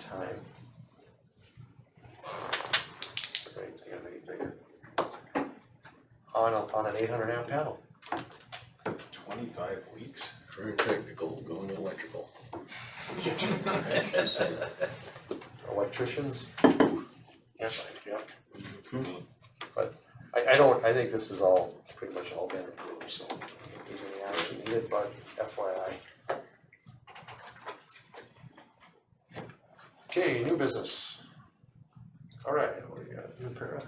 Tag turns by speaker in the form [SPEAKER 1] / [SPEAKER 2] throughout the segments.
[SPEAKER 1] time. Right, I gotta make it bigger. On a, on an eight hundred amp panel,
[SPEAKER 2] Twenty-five weeks?
[SPEAKER 3] Very technical, going electrical.
[SPEAKER 1] electricians. Yes, I, yeah. But I, I don't, I think this is all, pretty much all been approved, so there's any action needed, but FYI. Okay, new business. All right, what do you got, new para?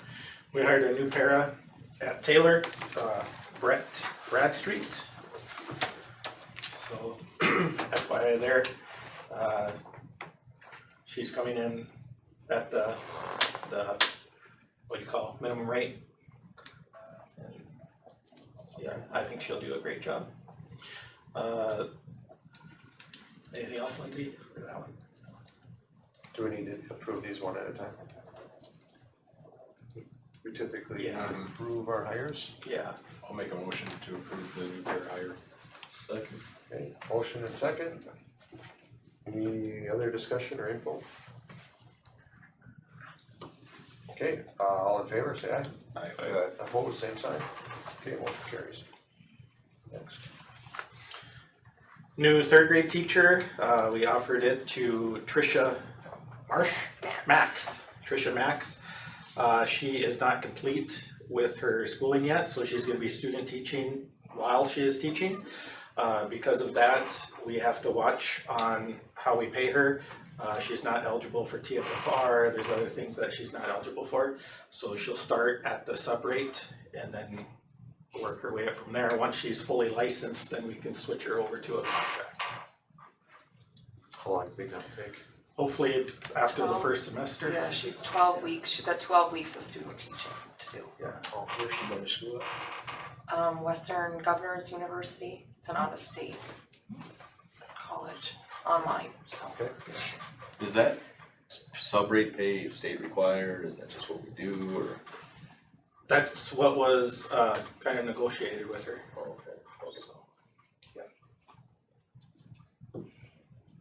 [SPEAKER 4] We hired a new para at Taylor, uh, Brett Bradstreet. So FYI there, uh, she's coming in at the, the, what do you call, it, minimum rate. And, Yeah, I think she'll do a great job. Uh, anything else, Lindsay, for that one?
[SPEAKER 1] Do we need to approve these one at a time? We typically
[SPEAKER 4] Yeah.
[SPEAKER 1] approve our hires.
[SPEAKER 4] Yeah,
[SPEAKER 2] I'll make a motion to approve the new pair hire.
[SPEAKER 3] Second.
[SPEAKER 1] Okay, motion and second. Any other discussion or info? Okay, uh, all in favor, say aye.
[SPEAKER 2] Aye.
[SPEAKER 3] uh,
[SPEAKER 1] Opposed, same sign. Okay, motion carries. Next.
[SPEAKER 4] new third grade teacher. Uh, we offered it to Trisha Marsh Max. Trisha Max. Uh, she is not complete with her schooling yet, so she's going to be student teaching while she is teaching. Uh, because of that, we have to watch on how we pay her. Uh, she's not eligible for TFFR. There's other things that she's not eligible for. So she'll start at the sub rate and then work her way up from there. Once she's fully licensed, then we can switch her over to a contract.
[SPEAKER 1] How long do we got to take?
[SPEAKER 4] Hopefully after the
[SPEAKER 5] Twelve.
[SPEAKER 4] first semester.
[SPEAKER 5] Yeah, she's twelve weeks, she's got twelve weeks of student teaching to do.
[SPEAKER 4] Yeah.
[SPEAKER 3] Oh, where's she going to school at?
[SPEAKER 5] Um, Western Governors University, it's an out-of-state college, online, so.
[SPEAKER 3] Is that s- sub-rate pay state required, is that just what we do, or?
[SPEAKER 4] That's what was uh kind of negotiated with her.
[SPEAKER 3] oh, okay, okay.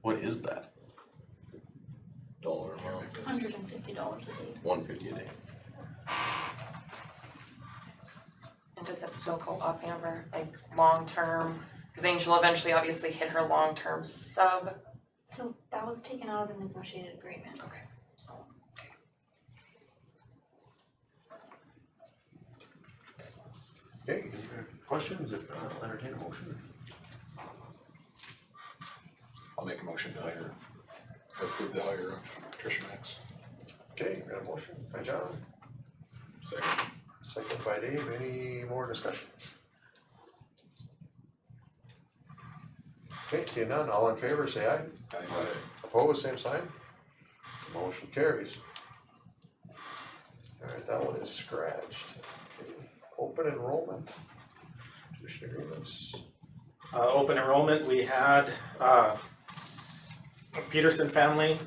[SPEAKER 3] What is that? Dollar amount?
[SPEAKER 6] Hundred and fifty dollars a day.
[SPEAKER 3] One fifty a day.
[SPEAKER 5] And does that still go up, Amber, like long-term? Cause Angel eventually obviously hit her long-term sub.
[SPEAKER 6] So that was taken out of the negotiated agreement.
[SPEAKER 5] Okay.
[SPEAKER 6] So
[SPEAKER 1] Okay, any other questions, if not, I'll entertain a motion.
[SPEAKER 2] I'll make a motion to hire, approve the hire of Tricia Max.
[SPEAKER 1] Okay, we got a motion by John,
[SPEAKER 2] Second.
[SPEAKER 1] second by Dave, any more discussion? Okay, seeing none, all in favor, say aye.
[SPEAKER 2] Aye.
[SPEAKER 1] Opposed, same sign. Motion carries. Alright, that one is scratched. Open enrollment. Tuition agreements.
[SPEAKER 4] Uh open enrollment, we had uh Peterson family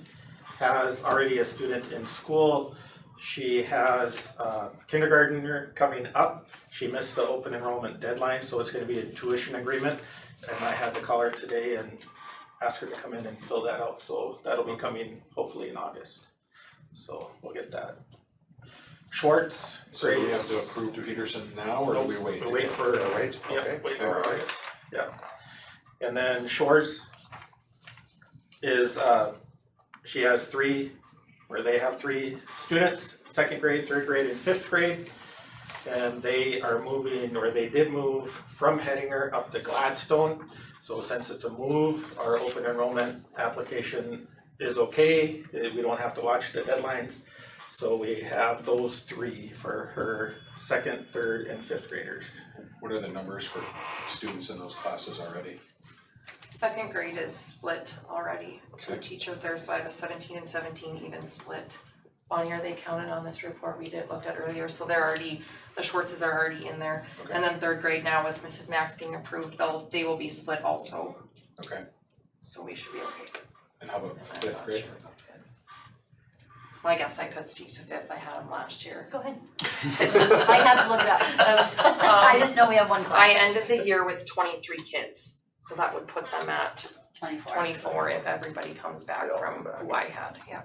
[SPEAKER 4] has already a student in school. She has a kindergartner coming up. She missed the open enrollment deadline, so it's gonna be a tuition agreement. And I had to call her today and ask her to come in and fill that out, so that'll be coming hopefully in August. So we'll get that. Schwartz,
[SPEAKER 2] So
[SPEAKER 4] great.
[SPEAKER 2] do we have to approve Peterson now, or do we wait?
[SPEAKER 4] We wait for
[SPEAKER 1] Gonna wait, okay?
[SPEAKER 4] Yep, wait for August, yep. And then Shores is, uh, she has three, or they have three students, second grade, third grade, and fifth grade. And they are moving, or they did move from Hedinger up to Gladstone. So since it's a move, our open enrollment application is okay, eh, we don't have to watch the deadlines. So we have those three for her second, third, and fifth graders.
[SPEAKER 2] What are the numbers for students in those classes already?
[SPEAKER 5] Second grade is split already, two
[SPEAKER 2] Okay.
[SPEAKER 5] teachers there, so I have a seventeen and seventeen even split. On year they counted on this report we did, looked at earlier, so they're already, the Schwartzes are already in there.
[SPEAKER 2] Okay.
[SPEAKER 5] And then third grade now with Mrs. Max being approved, they'll, they will be split also,
[SPEAKER 2] Okay,
[SPEAKER 5] so we should be okay.
[SPEAKER 2] and how about
[SPEAKER 5] I'm
[SPEAKER 2] fifth
[SPEAKER 5] not
[SPEAKER 2] grade?
[SPEAKER 5] sure about that. Well, I guess I could speak to fifth, I had them last year.
[SPEAKER 6] go ahead. I had to look it up. I just know we have one class.
[SPEAKER 5] Um, I ended the year with twenty-three kids, so that would put them at
[SPEAKER 7] Twenty-four.
[SPEAKER 5] twenty-four if everybody comes back
[SPEAKER 1] They all
[SPEAKER 5] from
[SPEAKER 1] come back.
[SPEAKER 5] who I had, yeah.